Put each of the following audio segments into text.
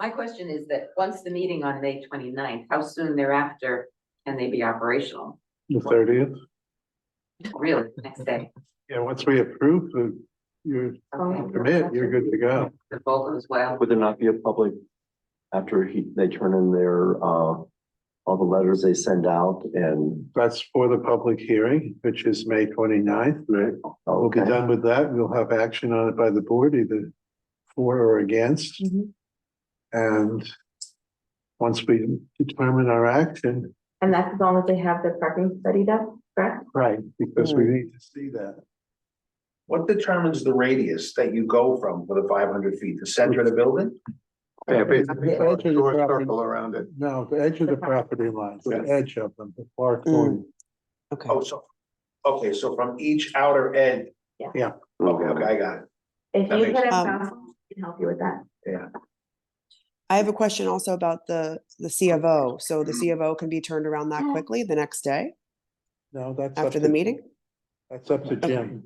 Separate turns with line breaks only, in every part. My question is that once the meeting on May 29th, how soon thereafter can they be operational?
The thirtieth,
Really, next day?
yeah, once we approve the, your
Okay.
permit, Oh, you're good to go.
The vote as well.
Would there not be a public, after he, they turn in their, uh, all the letters they send out and,
That's for the public hearing, which is May 29th. right? We'll be
oh, okay,
done with that, we'll have action on it by the board, either for or against.
Mhm.
And once we determine our action.
And that's as long as they have their parking study done, correct?
Right. Because we need to see that.
What determines the radius that you go from for the five hundred feet, the center of the building?
Yeah,
The
basically,
edge
draw
of
a
the
short
property.
circle around it.
No, the edge of the property lines, the edge of them, the
Mm.
far corner.
Okay,
Oh, so, okay, so from each outer end, okay, okay, I got it.
If
That
you
makes
could have
sense.
council, we can help you with that.
I have a question also about the, the C of O. So the C of O can be turned around that quickly the next day
No, that's. up
after
to-
the meeting?
That's up to Jim.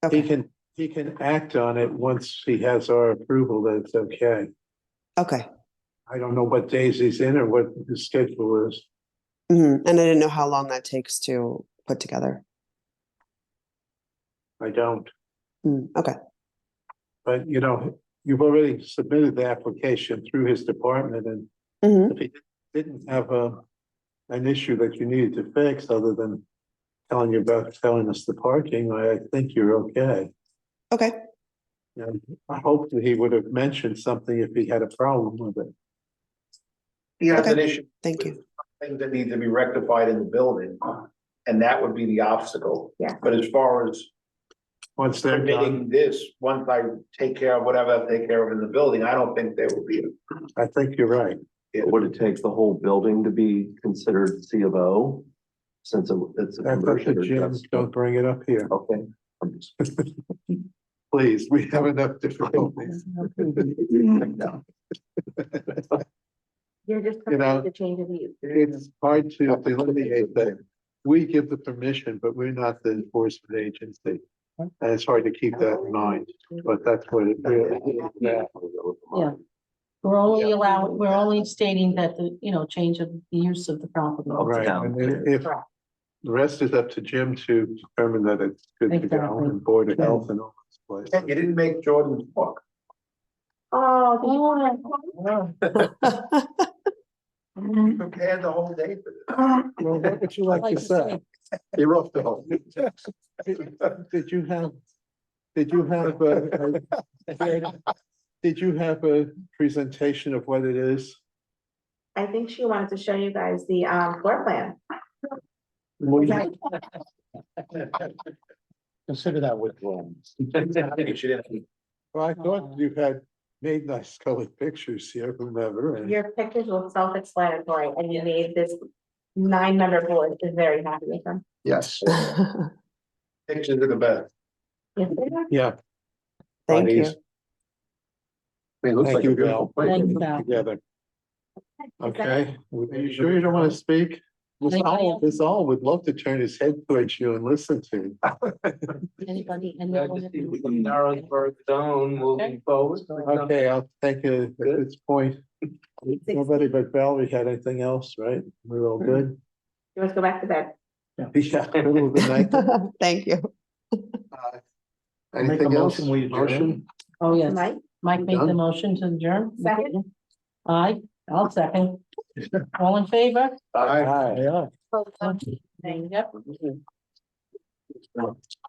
He
Okay,
can, he can act on it once he has our approval that it's okay.
okay.
I don't know what days he's in or what his schedule is.
Mhm. And I didn't know how long that takes to put together.
I don't.
Mm, Okay,
But you know, you've already submitted the application through his department and
Mhm.
if he didn't have a, an issue that you needed to fix other than telling you about, telling us the parking, I, I think you're okay.
okay.
And I hope that he would have mentioned something if he had a problem with it.
He has an
Okay.
issue,
Thank you.
things that need to be rectified in the building, and that would be the obstacle.
Yeah.
But as far as
Once they're done,
permitting this, once I take care of whatever I take care of in the building, I don't think there would be.
I think you're right.
would it take the whole building to be considered C of O? Since it- it's a
That's up to
conversion. or
Jim.
just-
Don't bring it up here.
Okay. I'm just-
Please, we have enough difficulties.
You're just
You know,
coming to change of use.
It's hard to delineate that. We give the permission, but we're not the enforcement agency. And it's hard to keep that in mind, but that's what it really is. about.
Yeah. We're only allowing, we're only stating that the, you know, change of the use of the property.
Right, and then if, the rest is up to Jim to determine that it's good to go
Exactly.
and Board of Health and all this
You
place.
didn't make Jordan walk.
Oh, do you wanna?
You prepared the whole day for this.
Well, what would you like
Like
to
to
say?
say.
You're off the hook. Did you have, did you have a, a- did you have a presentation of what it is?
I think she wanted to show you guys the um floor plan.
What do you-
Consider that withdrawn.
She didn't.
Well, I thought you had made nice colored pictures here, whomever, and
Your pictures look self-explanatory and you made this nine-member board is very happy with them.
Yes.
Pictures are the best.
Yes, they are.
yeah,
Thank you.
It looks
Thank
like a
you,
beautiful place.
Thank you, Val.
together,
Is that-
okay? Are you sure you don't want to speak? This
Like I
all,
am.
this all would love to turn his head towards you and listen to. you.
Anybody? and
Glad
no one
to
had
see
to-
we can narrow the bird down moving forward.
Okay, I'll take it at this point. Nobody but Val, we had anything else, right? We're all good?
You must go back to bed.
Yeah, middle of the night.
Thank you.
make a
Anything else?
motion, we adjourn.
Motion?
Oh, yes.
Mike,
Mike made the
Done.
motion to adjourn.
Second.
Aye, I'll second. All in favor?
Aye.
Yep.